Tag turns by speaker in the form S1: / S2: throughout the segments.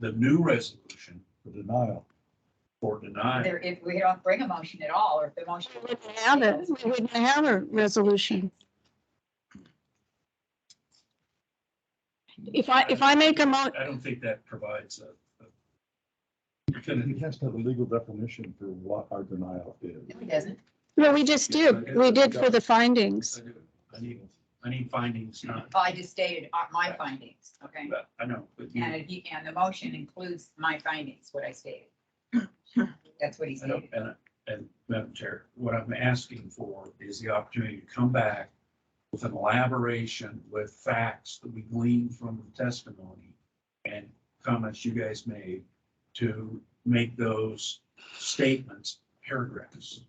S1: the new resolution for denial. For denial.
S2: There, if we don't bring a motion at all, or if the motion.
S3: We wouldn't have it. We wouldn't have a resolution. If I, if I make a mo,
S1: I don't think that provides a. a-
S4: It has to have a legal definition for what our denial is.
S2: No, it doesn't.
S3: no, we just did. We did for the findings.
S1: I need, I need findings, not,
S2: Oh, I just stated uh, my findings, okay?
S1: I know, but you,
S2: And,
S1: I
S2: it- he- and the motion includes my findings, what I stated. That's what he
S1: don't,
S2: stated.
S1: and, I- and Madam Chair, what I'm asking for is the opportunity to come back with an elaboration with facts that we gleaned from the testimony and comments you guys made to make those statements paragraphs.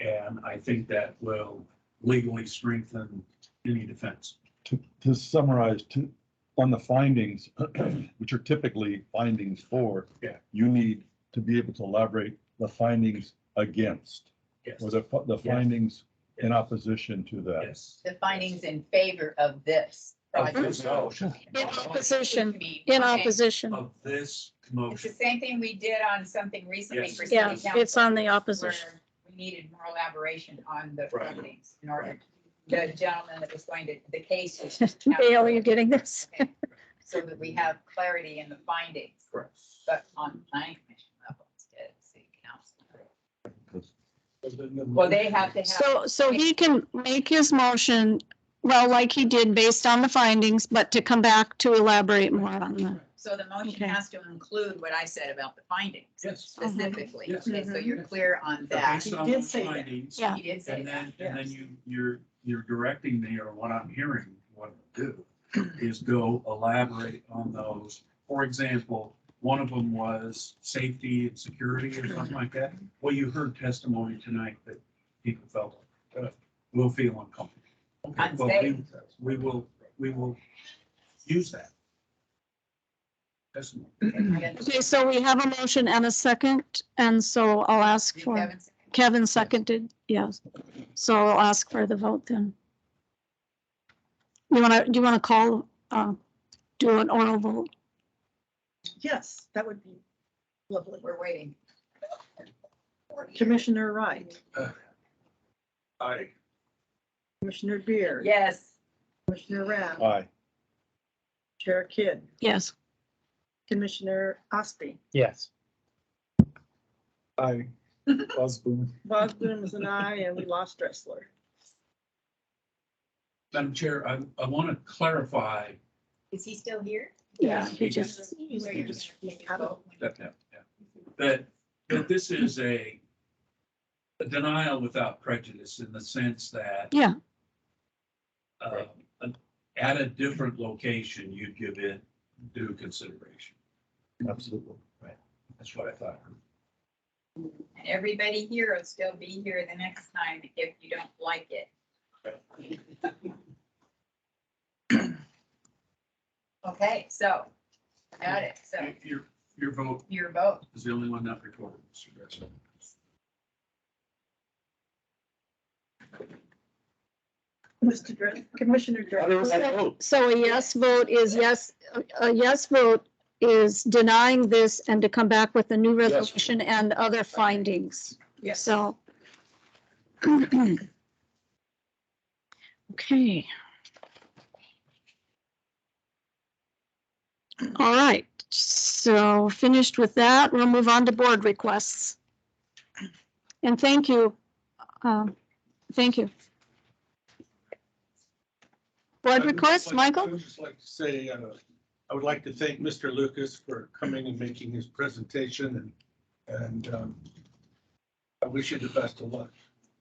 S1: And I think that will legally strengthen any defense.
S4: To, to summarize, to, on the findings, which are typically findings for.
S1: Yeah.
S4: You need to be able to elaborate the findings against,
S1: Yes.
S4: or the, fi- the
S1: Yeah.
S4: findings in opposition to that.
S1: Yes.
S2: The findings in favor of this.
S1: Of
S2: project.
S1: this motion.
S3: In opposition,
S2: Which means-
S3: in
S2: okay.
S3: opposition.
S1: Of this
S2: It's the
S1: motion.
S2: same thing we did on something recently
S1: Yes.
S2: for city
S3: Yeah,
S2: council.
S3: it's on the
S2: where
S3: opposition.
S2: we needed more elaboration on the
S1: Right.
S2: findings in order, the gentleman that was going to, the case. was-
S3: Dale, you're getting this?
S2: Okay. So that we have clarity in the findings,
S1: Correct.
S2: but on planning commission level instead of city council.
S1: Well,
S2: Well, they have to have.
S3: So, so he can make his motion, well, like he did based on the findings, but to come back to elaborate more on them.
S2: So the motion
S3: Okay.
S2: has to include what I said about the findings
S1: Yes.
S2: specifically.
S1: Yes.
S2: Okay, so you're clear on that.
S1: Based on
S5: did
S1: the
S5: say that.
S1: findings,
S3: Yeah.
S2: He did say
S1: And
S2: that.
S1: then, and then
S5: Yes.
S1: you, you're, you're directing me, or what I'm hearing, what to do, is go elaborate on those. For example, one of them was safety and security or
S5: Mm-hmm.
S1: something like that. Well, you heard testimony tonight that people felt, uh, will feel uncomfortable. Okay, well, we-
S2: Unsafe.
S1: We will, we will use that. Testimony.
S3: Okay, so we have a motion and a second, and so I'll ask
S2: You
S3: for,
S2: haven't said-
S3: Kevin seconded, yes. So I'll ask for the vote then. You want to, do you want to call, uh, do an oral vote?
S5: Yes, that would be lovely.
S2: We're waiting.
S5: Commissioner Wright,
S1: Aye.
S5: Commissioner Beer.
S2: Yes.
S5: Commissioner Rath,
S4: Aye.
S5: Chair Kidd,
S3: Yes,
S5: Commissioner Ospey.
S6: Yes. I Osborne.
S5: Bogdan is an aye and we lost Dressler.
S1: Madam Chair, I, I want to clarify
S2: Is he still here?
S3: yeah,
S1: he
S3: he just,
S2: Where you're
S1: just-
S2: gonna take a vote when-
S1: that, that, yeah. that, that this is a a denial without prejudice in the sense that
S3: yeah,
S1: uh, at a different location, you'd give it due consideration.
S4: Absolutely.
S1: That's what I thought.
S2: And everybody here will still be here the next time if you don't like it. Okay, so, got it. So
S1: Your, your vote
S2: your vote.
S1: is the only one not recorded, Mr. Gressel.
S5: Mr. Dress, Commissioner Dressler.
S3: so a yes vote is yes, a- a yes vote is denying this and to come back with a new resolution and other findings,
S5: Yes.
S3: so. Okay. All right, so finished with that, we'll move on to board requests. And thank you, um, thank you.
S7: Uh,
S3: Board requests, Michael?
S7: I would just like to say, uh, I would like to thank Mr. Lucas for coming and making his presentation and, and um, I wish you the best of luck.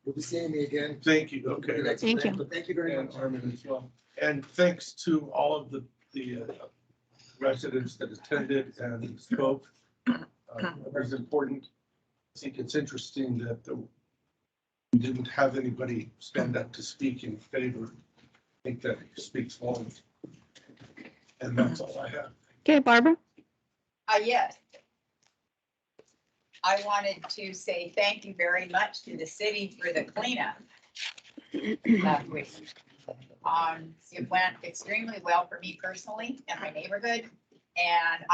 S8: You'll be seeing me again.
S7: Thank you, okay.
S8: Next
S3: Thank
S8: event,
S3: you.
S8: but Thank you very
S7: And
S8: much.
S7: Armin as well. And thanks to all of the, the uh, residents that attended and spoke. Uh, It was important. I think it's interesting that the- we didn't have anybody stand up to speak in favor. I think that speaks volumes. And that's all I have.
S3: Okay, Barbara?
S2: Uh, yes. I wanted to say thank you very much to the city for the cleanup last week. Um, it went extremely well for me personally and my neighborhood. And